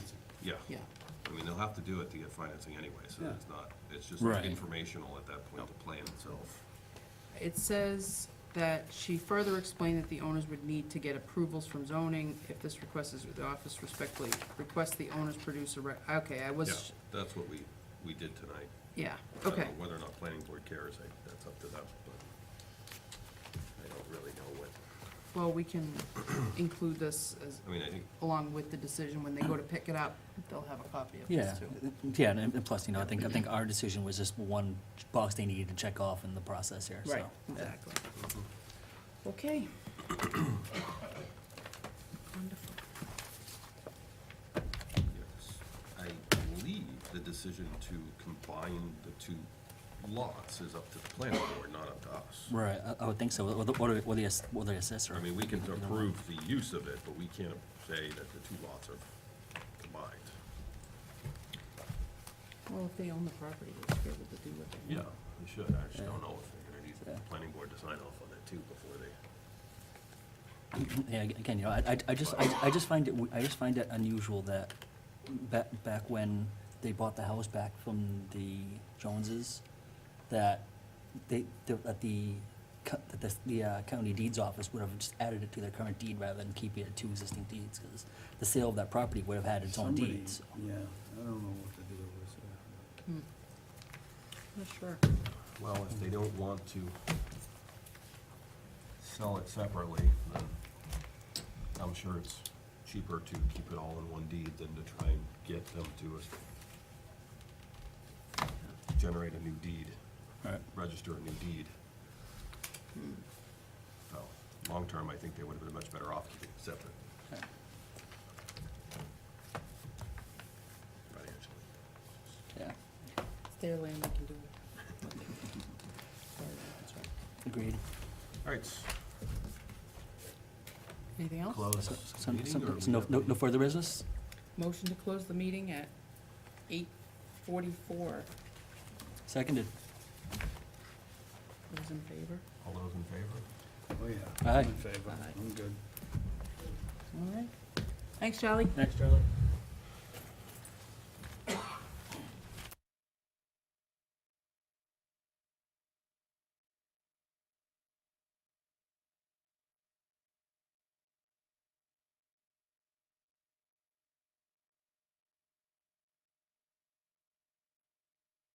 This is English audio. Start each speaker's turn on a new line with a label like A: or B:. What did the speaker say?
A: Yeah.
B: yeah.
A: I mean, they'll have to do it to get financing anyway, so
C: Yeah.
A: it's not, it's just
D: Right.
A: informational at that point, the plan itself.
B: It says that she further explained that the owners would need to get approvals from zoning if this request is, the office respectfully request the owners produce a, re- okay, I
A: Yeah,
B: was,
A: that's what we, we did tonight.
B: yeah,
A: I don't
B: okay.
A: know Whether or not planning board cares, I- that's up to them, but I don't really know what,
B: Well, we can include this as,
A: I mean, I think,
B: along with the decision, when they go to pick it up, they'll have a copy of
D: Yeah,
B: this too.
D: yeah, and and plus, you know, I think, I think our decision was just one box they needed to check off in the process here, so.
B: Right, exactly. Okay. Wonderful.
A: yes, I believe the decision to combine the two lots is up to the planning board, not up to us.
D: Right, I, I would think so, or the, or the- or the, ass- or the assessor.
A: I mean, we can approve the use of it, but we can't say that the two lots are combined.
B: Well, if they own the property, they should be able to do what they want.
A: We should, I just don't know if they're gonna need
D: Yeah.
A: the planning board to sign off on that too before they,
D: Yeah, ag- again, you know, I, I- I just, I, I just find it, w- I just find it unusual that back, back when they bought the house back from the Joneses, that they, the- that the, co- that the, the uh, county deeds office would have just added it to their current deed rather than keeping it to existing deeds, because the sale of that property would have had its own
C: Somebody-
D: deeds.
C: Yeah, I don't know what the deal was there.
B: Hmm. Not sure.
A: well, if they don't want to sell it separately, then I'm sure it's cheaper to keep it all in one deed than to try and get them to uh, generate a new deed,
D: Right.
A: register a new deed. So, long-term, I think they would have been much better off keeping it separate financially.
D: Yeah,
B: It's their land, they can do what they want.
D: agreed.
A: All right, s-
B: Anything else?
A: close
D: So, so-
A: meeting,
D: so-
A: or
D: so no,
A: we
D: no
A: have
D: no
A: any-
D: further business?
B: Motion to close the meeting at eight forty-four.
D: Seconded.
B: Those in favor?
A: All those in favor?
C: Oh, yeah. I'm
D: Aye.
C: in favor.
B: Aye.
C: I'm good.
B: All right. Thanks, Charlie.
D: Thanks, Charlie.